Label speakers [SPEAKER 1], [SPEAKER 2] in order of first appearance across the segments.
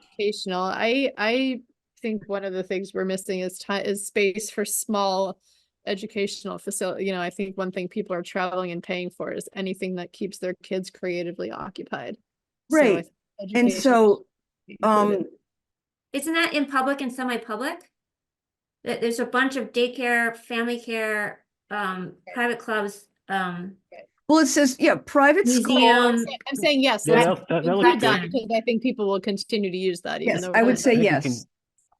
[SPEAKER 1] educational. I, I think one of the things we're missing is time, is space for small educational facility. You know, I think one thing people are traveling and paying for is anything that keeps their kids creatively occupied. So I
[SPEAKER 2] Right,
[SPEAKER 1] think
[SPEAKER 2] And
[SPEAKER 1] education
[SPEAKER 2] so,
[SPEAKER 1] should be
[SPEAKER 2] um,
[SPEAKER 1] included.
[SPEAKER 3] Isn't that in public and semi-public? That there's a bunch of daycare, family care, um, private clubs, um,
[SPEAKER 2] well, it says, yeah, private school.
[SPEAKER 3] Museum.
[SPEAKER 1] I'm saying- I'm saying yes.
[SPEAKER 3] Yeah,
[SPEAKER 1] let's
[SPEAKER 3] that-
[SPEAKER 1] include
[SPEAKER 3] that was
[SPEAKER 1] that
[SPEAKER 3] good.
[SPEAKER 1] because I think people will continue to use that. even
[SPEAKER 2] Yes,
[SPEAKER 1] though
[SPEAKER 2] I
[SPEAKER 1] we're
[SPEAKER 2] would
[SPEAKER 1] not-
[SPEAKER 2] say
[SPEAKER 1] Uh,
[SPEAKER 2] yes.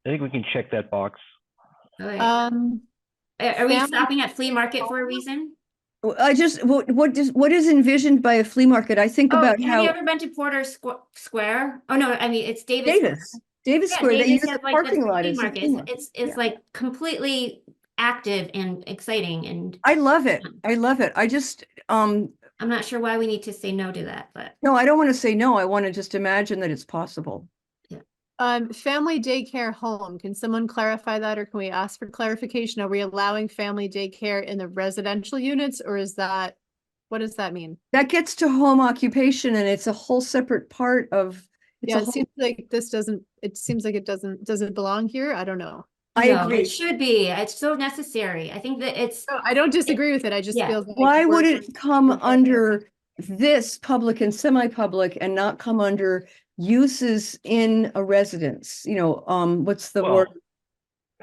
[SPEAKER 4] I think we can check that box.
[SPEAKER 3] like, are
[SPEAKER 1] Um,
[SPEAKER 3] Oh, are we
[SPEAKER 1] family-
[SPEAKER 3] stopping at flea market for a reason?
[SPEAKER 2] Well, I just, what, what is, what is envisioned by a flea market? I think
[SPEAKER 3] Oh, have
[SPEAKER 2] about
[SPEAKER 3] you
[SPEAKER 2] how
[SPEAKER 3] ever been to Porter Squ- Square? Oh, no, I mean, it's Davis. Square.
[SPEAKER 2] Davis, Davis
[SPEAKER 3] Yeah,
[SPEAKER 2] Square, they
[SPEAKER 3] Davis
[SPEAKER 2] use the
[SPEAKER 3] has, like,
[SPEAKER 2] parking lot
[SPEAKER 3] flea
[SPEAKER 2] as a
[SPEAKER 3] market.
[SPEAKER 2] flea market.
[SPEAKER 3] It's, it's like completely active and exciting and
[SPEAKER 2] I love it. I love it. I just, um,
[SPEAKER 3] I'm not sure why we need to say no to that, but.
[SPEAKER 2] no, I don't want to say no. I want to just imagine that it's possible.
[SPEAKER 1] um, family daycare home, can someone clarify that or can we ask for clarification? Are we allowing family daycare in the residential units or is that? What does that mean?
[SPEAKER 2] That gets to home occupation and it's a whole separate part of, it's a
[SPEAKER 1] Yeah, it
[SPEAKER 2] whole-
[SPEAKER 1] seems like this doesn't, it seems like it doesn't, does it belong here? I don't know.
[SPEAKER 2] I
[SPEAKER 3] No,
[SPEAKER 2] agree.
[SPEAKER 3] It should be. It's so necessary. I think that it's,
[SPEAKER 1] No, I don't disagree with it. I just
[SPEAKER 3] Yeah.
[SPEAKER 1] feel. like
[SPEAKER 2] Why would
[SPEAKER 1] we're-
[SPEAKER 2] it come
[SPEAKER 1] we're-
[SPEAKER 2] under this public and semi-public and not come under uses in a residence? You know, um, what's the
[SPEAKER 4] Well,
[SPEAKER 2] word?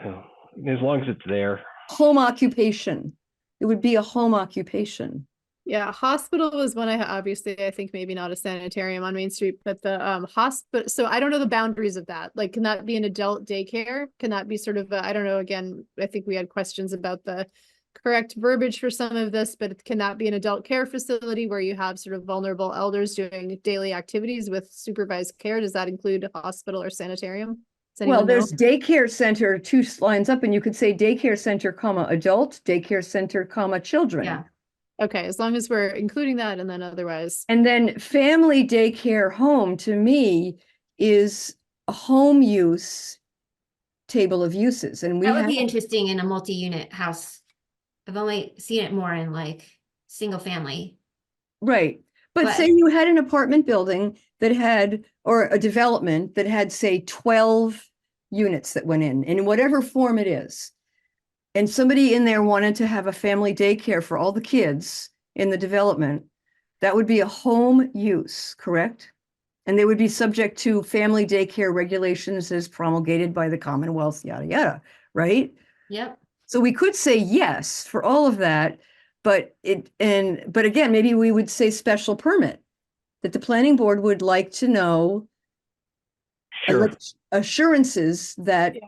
[SPEAKER 4] uh, As long as it's there.
[SPEAKER 2] Home occupation. It would be a home occupation.
[SPEAKER 1] Yeah, hospital was one I obviously I think maybe not a sanitarium on Main Street, but the um hospital. So I don't know the boundaries of that. Like, can that be an adult daycare? Can that be sort of I I don't know. Again, I think we had questions about the correct verbiage for some of this, but can that be an adult care facility where you have sort of vulnerable elders doing daily activities with supervised care? Does that include a hospital or sanitarium? Does
[SPEAKER 2] Well,
[SPEAKER 1] anyone know?
[SPEAKER 2] there's daycare center, two s- lines up, and you could say daycare center, comma, adult, daycare center, comma,
[SPEAKER 3] Yeah.
[SPEAKER 2] children.
[SPEAKER 1] Okay, as long as we're including that and then otherwise.
[SPEAKER 2] And then family daycare home to me is a home use table of uses and we
[SPEAKER 3] that
[SPEAKER 2] have.
[SPEAKER 3] would be interesting in a multi-unit house. I've only seen it more in like, single family.
[SPEAKER 2] Right, but
[SPEAKER 3] But-
[SPEAKER 2] say you had an apartment building that had, or a development that had, say, twelve units that went in, in whatever form it is. And somebody in there wanted to have a family daycare for all the kids in the development, that would be a home use, correct? And they would be subject to family daycare regulations as promulgated by the Commonwealth, yada, yada, right?
[SPEAKER 3] Yep.
[SPEAKER 2] So we could say yes for all of that, but it, and, but again, maybe we would say special permit. That the planning board would like to know
[SPEAKER 4] Sure.
[SPEAKER 2] alleg- assurances that
[SPEAKER 1] Yeah.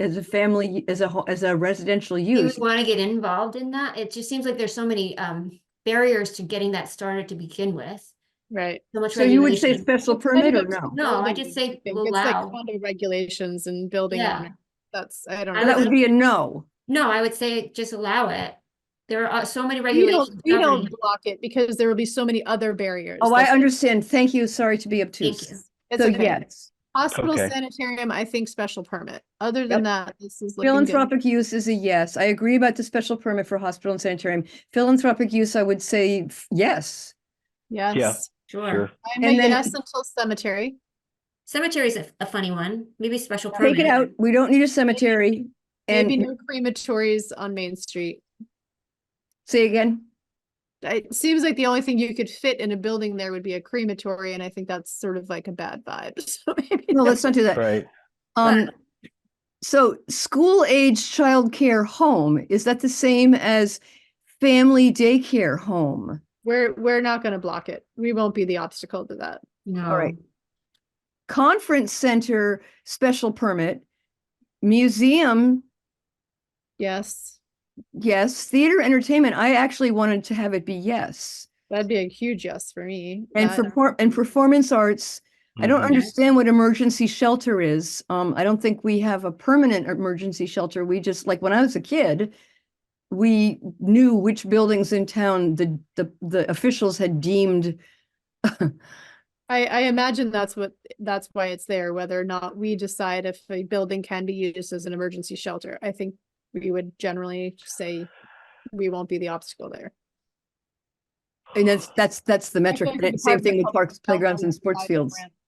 [SPEAKER 2] as a family, as a, ho- as a residential
[SPEAKER 3] You
[SPEAKER 2] use,
[SPEAKER 3] would want to get involved in that. It just seems like there's so many, um, barriers to getting that started to begin with.
[SPEAKER 1] Right.
[SPEAKER 3] So much
[SPEAKER 2] so you would say
[SPEAKER 3] regulation.
[SPEAKER 2] special
[SPEAKER 1] kind
[SPEAKER 2] permit
[SPEAKER 1] of
[SPEAKER 2] or
[SPEAKER 1] a
[SPEAKER 2] no?
[SPEAKER 3] No, I
[SPEAKER 1] building,
[SPEAKER 3] just say
[SPEAKER 1] think. It's like
[SPEAKER 3] allow.
[SPEAKER 1] condo regulations and building.
[SPEAKER 3] Yeah.
[SPEAKER 1] owners. That's, I don't
[SPEAKER 3] I
[SPEAKER 1] know.
[SPEAKER 2] That would be a no.
[SPEAKER 3] No, I would say just allow it. There are uh, so many
[SPEAKER 1] We don't,
[SPEAKER 3] regulations.
[SPEAKER 1] we
[SPEAKER 3] governing
[SPEAKER 1] don't
[SPEAKER 3] it.
[SPEAKER 1] block it because there will be so many other barriers.
[SPEAKER 2] Oh, I
[SPEAKER 1] That's-
[SPEAKER 2] understand. Thank you. Sorry to be
[SPEAKER 3] Thank you.
[SPEAKER 2] obtuse.
[SPEAKER 1] it's
[SPEAKER 2] So
[SPEAKER 1] okay.
[SPEAKER 2] yes,
[SPEAKER 1] Hospital
[SPEAKER 4] Okay.
[SPEAKER 1] sanitarium, I think special permit. Other than that, this is. looking good.
[SPEAKER 2] Philanthropic use is a yes. I agree about the special permit for hospital and sanitarium. Philanthropic use, I would say f- yes.
[SPEAKER 1] Yes.
[SPEAKER 3] Sure.
[SPEAKER 4] Sure.
[SPEAKER 1] I'm
[SPEAKER 2] And
[SPEAKER 1] a
[SPEAKER 2] then-
[SPEAKER 1] yes until cemetery.
[SPEAKER 3] Cemetery is a, a funny one, maybe special
[SPEAKER 2] Take it
[SPEAKER 3] permit.
[SPEAKER 2] out. We don't need a cemetery.
[SPEAKER 1] Maybe
[SPEAKER 2] And
[SPEAKER 1] no crematories on Main Street.
[SPEAKER 2] say again,
[SPEAKER 1] It seems like the only thing you could fit in a building there would be a crematory, and I think that's sort of like a bad vibe. So maybe. no.
[SPEAKER 2] no, let's not do that.
[SPEAKER 4] Right.
[SPEAKER 2] Um, so school age childcare home, is that the same as family daycare home?
[SPEAKER 1] We're, we're not gonna block it. We won't be the obstacle to that.
[SPEAKER 3] No.
[SPEAKER 2] All right. Conference center special permit, museum,
[SPEAKER 1] Yes,
[SPEAKER 2] yes, theater entertainment. I actually wanted to have it be yes.
[SPEAKER 1] that'd be a huge yes for me.
[SPEAKER 2] And
[SPEAKER 1] that-
[SPEAKER 2] for, por- and performance arts, I don't
[SPEAKER 4] Mhm.
[SPEAKER 3] under-
[SPEAKER 2] understand what emergency shelter is. Um, I don't think we have a permanent emergency shelter. We just, like, when I was a kid, we knew which buildings in town the, the, the officials had deemed.
[SPEAKER 1] I, I imagine that's what, that's why it's there, whether or not we decide if a building can be used as an emergency shelter. I think we would generally say we won't be the obstacle there.
[SPEAKER 2] And that's, that's, that's the metric.
[SPEAKER 1] think
[SPEAKER 2] That
[SPEAKER 1] the
[SPEAKER 2] Same
[SPEAKER 1] Department
[SPEAKER 2] thing
[SPEAKER 1] of
[SPEAKER 2] with
[SPEAKER 1] Public
[SPEAKER 2] parks,
[SPEAKER 1] Health
[SPEAKER 2] playgrounds
[SPEAKER 1] only
[SPEAKER 2] and sports
[SPEAKER 1] provides a
[SPEAKER 2] fields.
[SPEAKER 1] grant